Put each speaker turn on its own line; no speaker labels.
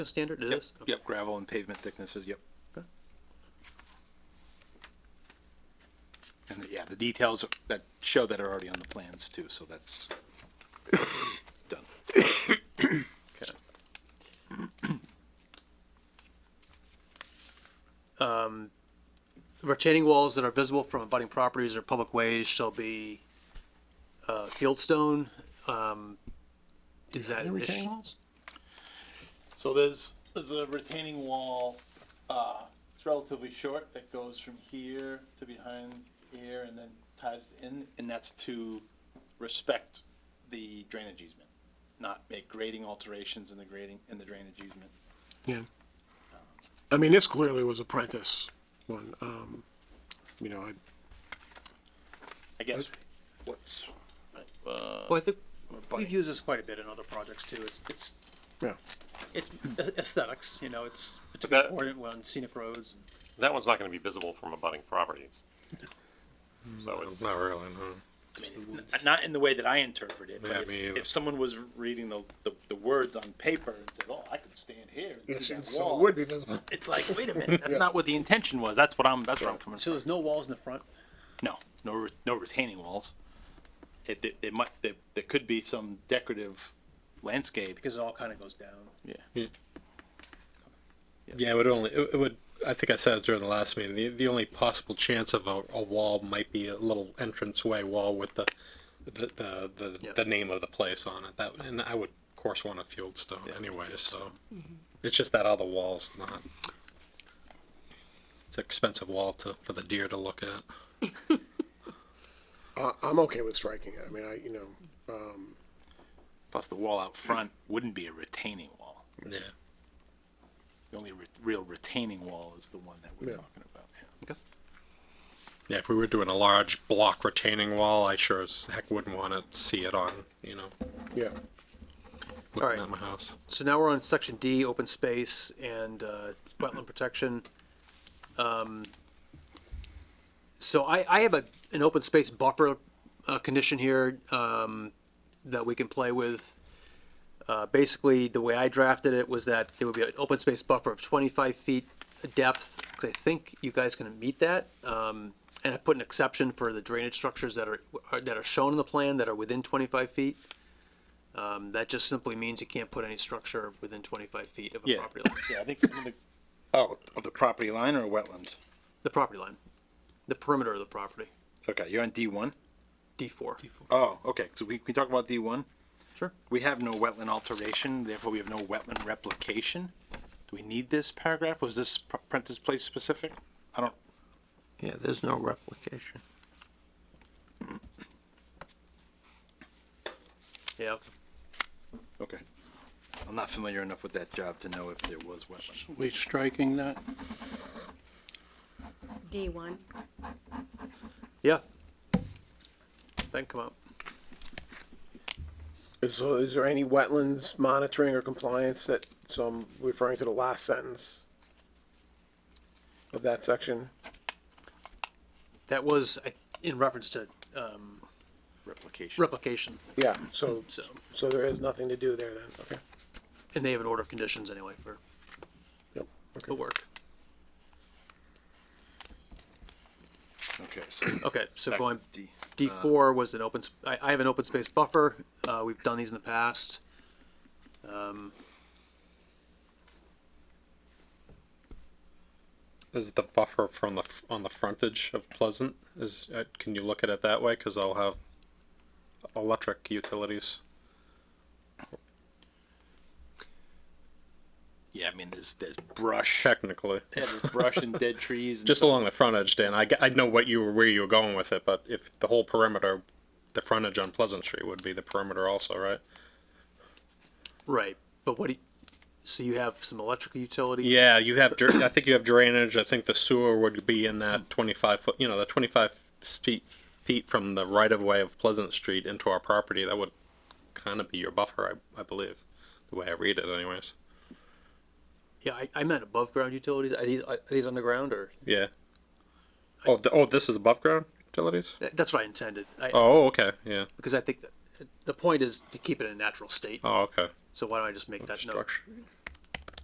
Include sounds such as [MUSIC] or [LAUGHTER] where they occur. The standard it
Yep,
is?
yep, gravel and pavement thicknesses, yep.
Okay.
And yeah, the details that show that are already on the plans too, so that's [COUGHS] done.
Okay. Um, retaining walls that are visible from abutting properties or public ways shall be, uh, field stone, um, is that? an issue?
walls?
So there's, there's a retaining wall, uh, it's relatively short that goes from here to behind here and then ties in, and that's to respect the drainage easement, not make grading alterations in the grading, in the drainage easement.
Yeah. I mean, this clearly was a Prentice one. Um, you know, I,
I guess,
What's,
Well, I think we've used this quite a bit in other projects too. It's, it's,
yeah.
it's aesthetics, you know, it's
particularly
particularly
that-
important when scenic roads.
That one's not gonna be visible from abutting properties. So it's,
Hmm. Not really, no.
I mean, n- not in the way that I interpret it,
Yeah,
but
me
if,
either.
if someone was reading the, the, the words on paper and said, oh, I could stand here and see that wall.
be visible.
It's like, wait a minute, that's not what the intention was, that's what I'm, that's where I'm coming from.
So there's no walls in the front?
No, no, re- no retaining walls. It, it, it might, there, there could be some decorative landscape.
Because it all kind of goes down.
Yeah.
Yeah, it would only, it it would, I think I said it during the last meeting, the, the only possible chance of a, a wall might be a little entranceway wall with the, the, the, the,
Yep.
the name of the place on it. That, and I would, of course, want a field stone anyway, so. Mm-hmm. It's just that other wall's not. It's an expensive wall to, for the deer to look at.
I, I'm okay with striking it. I mean, I, you know,
plus the wall out front wouldn't be a retaining wall.
Yeah.
The only re- real retaining wall is the one that we're
Yeah.
talking about, yeah.
Okay.
Yeah, if we were doing a large block retaining wall, I sure as heck wouldn't want to see it on, you know,
yeah.
looking
Alright.
at my house.
So now we're on section D, open space and, uh, wetland protection. Um, so I, I have a, an open space buffer, uh, condition here, um, that we can play with. Uh, basically, the way I drafted it was that there would be an open space buffer of twenty-five feet depth, 'cause I think you guys can meet that. Um, and I put an exception for the drainage structures that are, are- that are shown in the plan that are within twenty-five feet. Um, that just simply means you can't put any structure within twenty-five feet of a
Yeah.
property line,
Yeah, I think, I mean, the-
Oh, of the property line or wetlands?
the property line, the perimeter of the property,
Okay, you're on D one?
D four.
Oh, okay, so we, we talk about D one?
Sure.
We have no wetland alteration, therefore we have no wetland replication. Do we need this paragraph? Was this P- Prentice Place specific? I don't,
Yeah, there's no replication.
Yeah,
okay. I'm not familiar enough with that job to know if there was wetland.
We striking that?
D one.
yeah. That can come out.
Is, so is there any wetlands monitoring or compliance that, so I'm referring to the last sentence of that section?
That was I- in reference to, um,
Replication.
replication,
Yeah, so,
so,
so there is nothing to do there then, okay.
and they have an order of conditions anyway for
Yep,
the work.
Okay, so.
Okay, so
back to
going,
D.
D four was an open, sp- I, I have an open space buffer, uh, we've done these in the past.
Is the buffer from the f- on the frontage of Pleasant? Is uh, can you look at it that way? Because I'll have electric utilities.
Yeah, I mean, there's, there's brush.
Technically,
Yeah, there's brush and dead trees.
[LAUGHS]
and
just along the frontage, Dan. I, g- I know what you were where you were going with it, but if the whole perimeter, the frontage on Pleasant Street would be the perimeter also, right?
Right, but what do you, so you have some electrical utilities?
Yeah, you have. dra- I think you have drainage. I think the sewer would be in that twenty-five foot. You know, the twenty-five feet feet from the right of way of Pleasant Street into our property. That would kind of be your buffer, I, I believe, the way I read it, anyways.
Yeah, I, I meant above ground utilities. Are these, are these underground or?
Yeah. Oh, th- oh, this is above ground utilities.
That- That's what I intended. I,
Oh, okay, yeah.
Because I think that the point is to keep it in a natural state.
Oh, okay.
So why don't I just make that note?
Structure.